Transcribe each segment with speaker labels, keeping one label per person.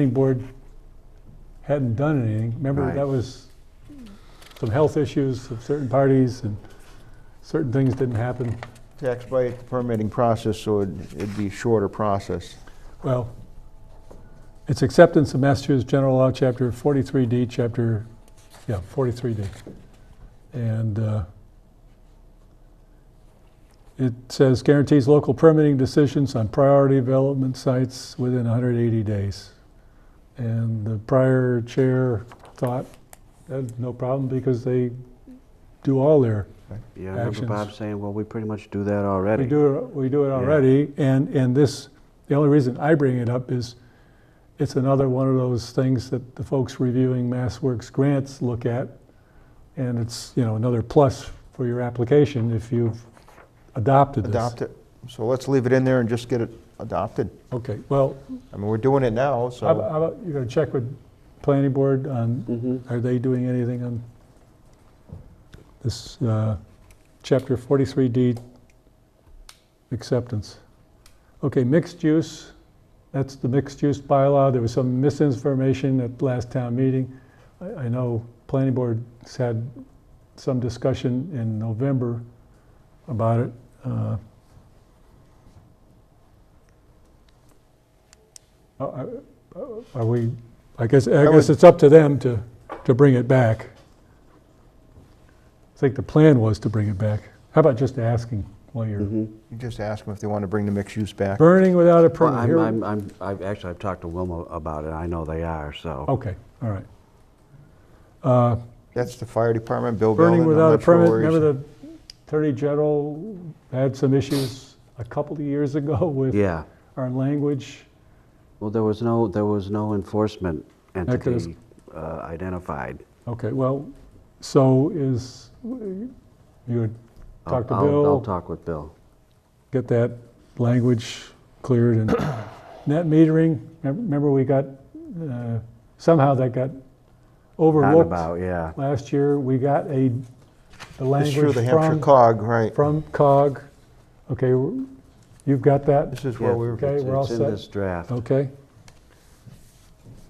Speaker 1: planning board hadn't done anything. Remember,
Speaker 2: Right.
Speaker 1: that was some health issues of certain parties and certain things didn't happen.
Speaker 2: To expedite the permitting process, so it'd it'd be a shorter process.
Speaker 1: Well, it's acceptance of Massachusetts General Law, Chapter 43D, Chapter, yeah, 43D. And uh, it says guarantees local permitting decisions on priority development sites within 180 days. And the prior chair thought, that's no problem because they do all their
Speaker 3: Yeah, I remember
Speaker 1: actions.
Speaker 3: Bob saying, well, we pretty much do that already.
Speaker 1: We do, it- we do it
Speaker 3: Yeah.
Speaker 1: already, and, and this, the only reason I bring it up is it's another one of those things that the folks reviewing MassWorks grants look at, and it's, you know, another plus for your application if you've adopted this.
Speaker 2: Adopt it. So let's leave it in there and just get it adopted.
Speaker 1: Okay, well,
Speaker 2: I mean, we're doing it now,
Speaker 1: how
Speaker 2: so.
Speaker 1: about- how about, you're gonna check with planning board on, are they doing anything on this, uh, chapter 43D acceptance? Okay, mixed use, that's the mixed use bylaw. There was some misinformation at last town meeting. I, I know planning board's had some discussion in November about it. Uh, Are are we, I guess, I
Speaker 2: I
Speaker 1: guess
Speaker 2: would-
Speaker 1: it's up to them to, to bring it back. I think the plan was to bring it back. How about just asking while you're
Speaker 2: You just ask them if they want to bring the mixed use back.
Speaker 1: Burning without a
Speaker 3: Mm-hmm. Well,
Speaker 1: permit.
Speaker 3: I'm,
Speaker 1: Here-
Speaker 3: I'm, I'm, I've, actually, I've talked to Wilma about it, I know they are, so.
Speaker 1: Okay, all right. Uh,
Speaker 2: That's the fire department, Bill Bellin.
Speaker 1: Burning
Speaker 2: I'm
Speaker 1: without a
Speaker 2: not sure
Speaker 1: permit,
Speaker 2: where he's-
Speaker 1: remember the Attorney General had some issues a couple of years ago with
Speaker 3: Yeah,
Speaker 1: our language?
Speaker 3: well, there was no, there was no enforcement
Speaker 1: could've-
Speaker 3: entity uh, identified.
Speaker 1: Okay, well, so is, you would
Speaker 3: I'll-
Speaker 1: talk to
Speaker 3: I'll- I'll
Speaker 1: Bill,
Speaker 3: talk with Bill.
Speaker 1: get that language cleared and net metering, remem- remember we got, uh, somehow that got
Speaker 3: Round
Speaker 1: overlooked
Speaker 3: about, yeah.
Speaker 1: last year. We got a, the
Speaker 2: It's through
Speaker 1: language
Speaker 2: the Hampshire
Speaker 1: from
Speaker 2: cog, right.
Speaker 1: from COG. Okay, w- you've got that,
Speaker 2: This is where
Speaker 3: Yeah,
Speaker 2: we were.
Speaker 1: okay,
Speaker 3: it's-
Speaker 1: we're all
Speaker 3: It's
Speaker 1: set?
Speaker 3: in this draft.
Speaker 1: okay?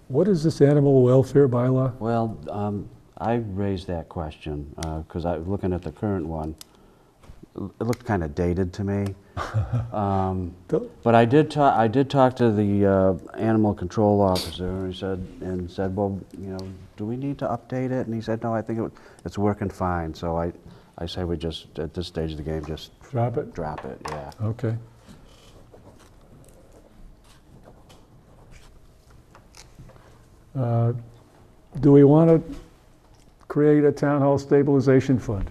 Speaker 1: What is this animal welfare bylaw?
Speaker 3: Well, um, I raised that question, because I, looking at the current one, l- it looked kind of dated to me. Um,
Speaker 1: The-
Speaker 3: But I did talk, I did talk to the uh, animal control officer, and he said, and said, well, you know, do we need to update it? And he said, no, I think it, it's working fine, so I, I say we just, at this stage of the game, just
Speaker 1: Drop it,
Speaker 3: drop it, yeah.
Speaker 1: okay. Uh, Do we want to create a town hall stabilization fund?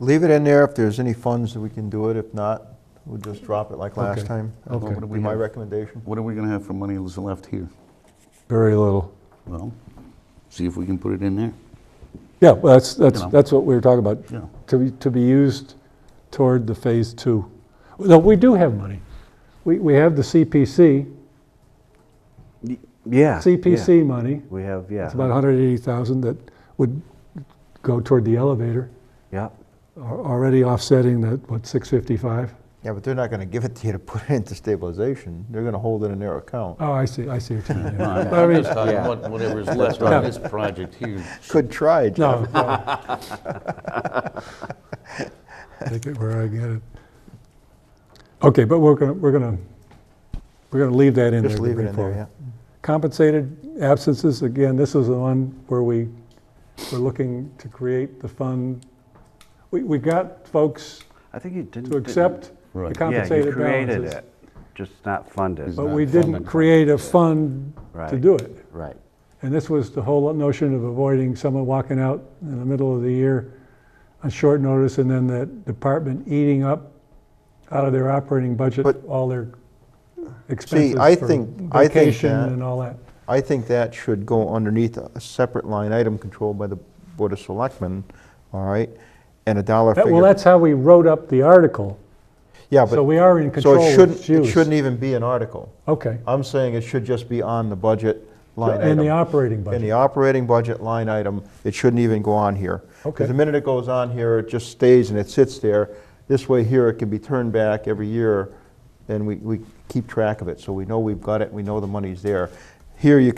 Speaker 2: Leave it in there if there's any funds that we can do it. If not, we'll just drop it like
Speaker 1: Okay.
Speaker 2: last time. That
Speaker 1: Okay.
Speaker 2: would be my recommendation.
Speaker 4: What are we gonna have for money that's left here?
Speaker 1: Very little.
Speaker 4: Well, see if we can put it in there,
Speaker 1: Yeah, well, that's, that's,
Speaker 4: You know.
Speaker 1: that's what we were talking about,
Speaker 4: you know.
Speaker 1: to be, to be used toward the phase two. No, we do have money. We, we have the CPC,
Speaker 3: Y-
Speaker 1: Ah,
Speaker 3: Yeah. yeah.
Speaker 1: CPC money.
Speaker 3: We have, yeah.
Speaker 1: It's about 180,000 that would go toward the elevator,
Speaker 3: Yep.
Speaker 1: al- already offsetting that, what, 655?
Speaker 2: Yeah, but they're not going to give it to you to put it into stabilization. They're going to hold it in their account.
Speaker 1: Oh, I see, I see what you mean.
Speaker 4: No,
Speaker 1: yeah.
Speaker 4: I'm-
Speaker 1: But I
Speaker 4: I'm
Speaker 1: mean-
Speaker 4: just talking
Speaker 3: Yeah.
Speaker 4: about whatever's left on this project here.
Speaker 2: Good try, Jeff.
Speaker 1: No. no. Take it where I get it. Okay, but we're gonna, we're gonna, we're gonna leave that in there.
Speaker 2: Just
Speaker 1: to
Speaker 2: leave it
Speaker 1: bring
Speaker 2: in there,
Speaker 1: forward.
Speaker 2: yeah.
Speaker 1: Compensated absences, again, this is the one where we, we're looking to create the fund. We, we got folks
Speaker 3: I think you didn't.
Speaker 1: to accept the
Speaker 4: Right.
Speaker 1: compensated balances.
Speaker 3: Yeah, you created it, just not funded.
Speaker 1: But
Speaker 4: not
Speaker 1: we didn't
Speaker 4: funded.
Speaker 1: create a fund to
Speaker 3: Right.
Speaker 1: do it.
Speaker 3: Right.
Speaker 1: And this was the whole notion of avoiding someone walking out in the middle of the year on short notice and then that department eating up out of their operating budget,
Speaker 2: But-
Speaker 1: all their expenses
Speaker 2: I
Speaker 1: for
Speaker 2: think- I think
Speaker 1: vacation
Speaker 2: that-
Speaker 1: and all that.
Speaker 2: I think that should go underneath a separate line item controlled by the Board of Selectmen, all right? And a dollar
Speaker 1: That- Well,
Speaker 2: figure.
Speaker 1: that's how we wrote up the article,
Speaker 2: Yeah,
Speaker 1: so
Speaker 2: but,
Speaker 1: we are in
Speaker 2: so
Speaker 1: control
Speaker 2: it
Speaker 1: of
Speaker 2: shouldn't,
Speaker 1: its
Speaker 2: it
Speaker 1: use.
Speaker 2: shouldn't even be an article.
Speaker 1: Okay,
Speaker 2: I'm saying it should just be on the budget line
Speaker 1: and the
Speaker 2: item.
Speaker 1: operating
Speaker 2: In the
Speaker 1: budget,
Speaker 2: operating budget line item, it shouldn't even go on here.
Speaker 1: Okay.
Speaker 2: Because the minute it goes on here, it just stays and it sits there. This way here, it can be turned back every year, and we, we keep track of it, so we know we've got it, we know the money's there. Here you